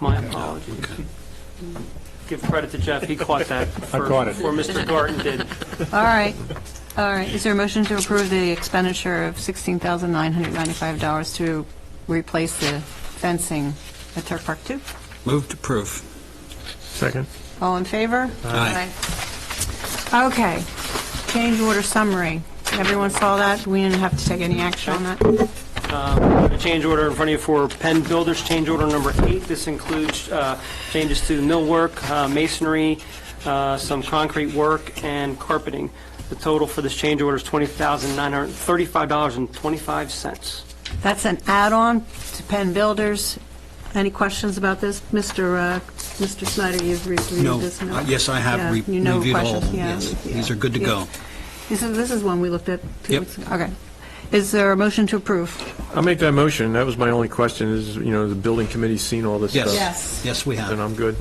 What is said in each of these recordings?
My apologies. Give credit to Jeff, he caught that. I first caught it. Before Mr. Garten did. All right, all right. Is there a motion to approve the expenditure of $16,995 to replace the fencing at Turk Park 2? Move to proof. Second. All in favor? Aye. Aye. Okay, change order summary. Everyone saw that? We didn't have to take any action on that? We have a change order in front of you for Penn Builders, change order number eight. This includes uh, changes to millwork, uh, masonry, uh, some concrete work, and carpeting. The total for this change order is $20,935.25. That's an add-on to Penn Builders. Any questions about this? Mr. uh, Mr. Snyder, you've reviewed No, this? uh, yes, I have Yeah, re- you know reviewed all of questions, them, yeah, yes. yeah. These are good to Yeah. go. This is, this is one we looked at two Yep. weeks ago. Okay. Is there a motion to approve? I'll make that motion. That was my only question, is, you know, the building committee's seen all this stuff. Yes. Yes. Yes, we Then have. I'm good.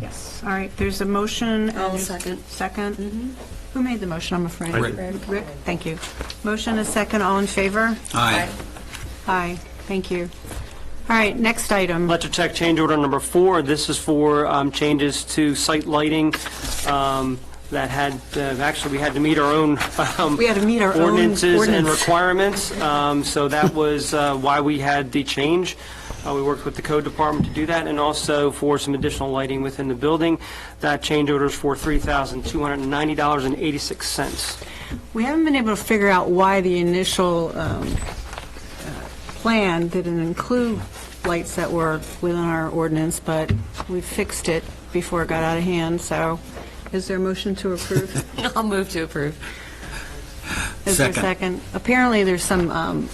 Yes. All right, there's a motion. and- I'll second. Mm-hmm. Second? Who made the motion, I'm afraid? I did. Rick. Rick, thank you. Motion is second, all in favor? Aye. Aye, thank you. All right, next item. Let's check change order number four. This is for um, changes to site lighting um, that had, uh, actually, we had to meet our own um, We had to meet our own ordinances and ordinance. requirements. Um, So that was uh, why we had the change. Uh, We worked with the code department to do that, and also for some additional lighting within the building. That change order is for $3,290.86. We haven't been able to figure out why the initial um, uh, plan didn't include lights that were within our ordinance, but we fixed it before it got out of hand, so is there a motion to approve? I'll move to approve. Is there a Second. second? Apparently, there's some um,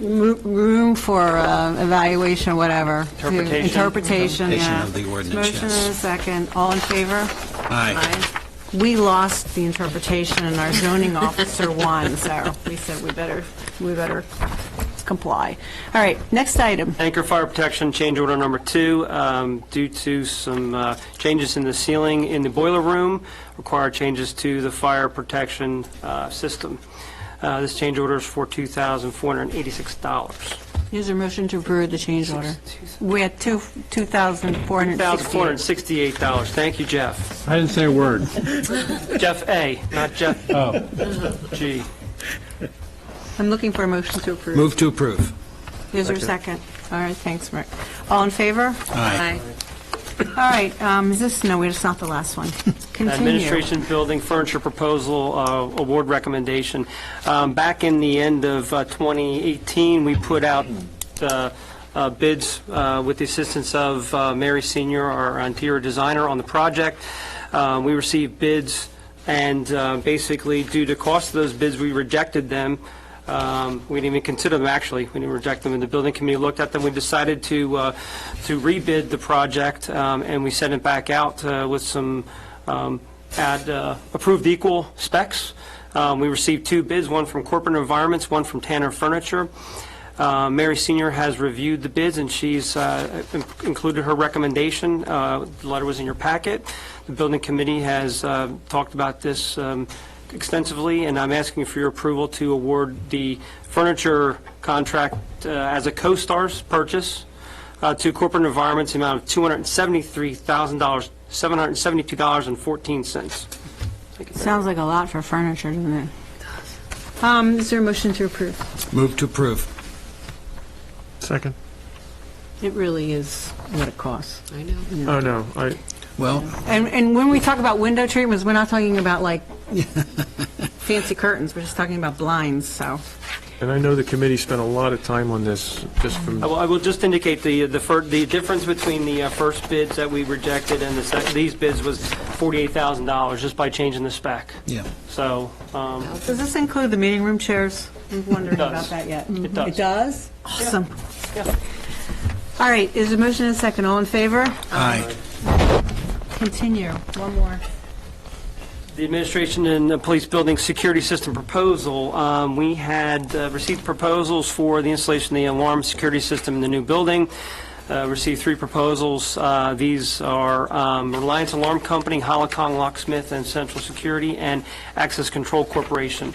roo- room for uh, evaluation, whatever. to- Interpretation. Interpretation, Interpretation yeah. of the ordinance, Motion yes. and a second. All in favor? Aye. We lost the interpretation, and our zoning officer won, so we said we better, we better comply. All right, next item. Anchor Fire Protection, change order number two, um, due to some uh, changes in the ceiling in the boiler room, require changes to the fire protection uh, system. Uh, This change order is for $2,486. Is there a motion to approve the change order? We had two, two thousand four hundred sixty. $1,468, thank you, Jeff. I didn't say a word. Oh. Jeff A., not Jeff G. I'm looking for a motion to approve. Move to approve. Is there a second? All right, thanks, Mark. All in favor? Aye. All right, um, is this, no, wait, it's not the last one. Continue. Administration Building Furniture Proposal uh, Award Recommendation. Um, Back in the end of uh, 2018, we put out uh, uh, bids uh, with the assistance of uh, Mary Senior, our interior designer on the project. Uh, We received bids, and uh, basically, due to cost of those bids, we rejected them. Um, We didn't even consider them, actually. We didn't reject them, and the building committee looked at them. We decided to, uh, to rebid the project, um, and we sent it back out uh, with some um, add uh, approved equal specs. Um, We received two bids, one from Corporate Environments, one from Tanner Furniture. Uh, Mary Senior has reviewed the bids, and she's uh, in- included her recommendation. Uh, The letter was in your packet. The building committee has uh, talked about this um, extensively, and I'm asking for your approval to award the furniture contract uh, as a co-star's purchase uh, to Corporate Environments, the amount of $273,772.14. Sounds like a lot for furniture, doesn't it? Um, is there a motion to approve? Move to approve. Second. It really is what it costs. I know. Oh, no, I, Well, And, and when we talk about window treatments, we're not talking about like fancy curtains, we're just talking about blinds, so. and I know the committee spent a lot of time on this, just I from, will- I will just indicate the, the fir- the difference between the uh, first bids that we rejected and the sec, these bids was $48,000 just by changing the spec. yeah. So, um, Does this include the meeting room chairs? I'm wondering It does. about that yet. Mm-hmm. It does. It does? Awesome. All right, is there a motion and a second, all in favor? Aye. Continue, one more. the administration and the police building security system proposal, um, we had uh, received proposals for the installation of the alarm security system in the new building, Uh, received three proposals. Uh, These are um, Reliance Alarm Company, Holocong Locksmith, and Central Security, and Access Control Corporation.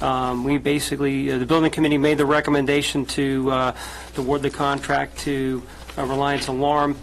Um, We basically, uh, the building committee made the recommendation to uh, to award the contract to uh, Reliance Alarm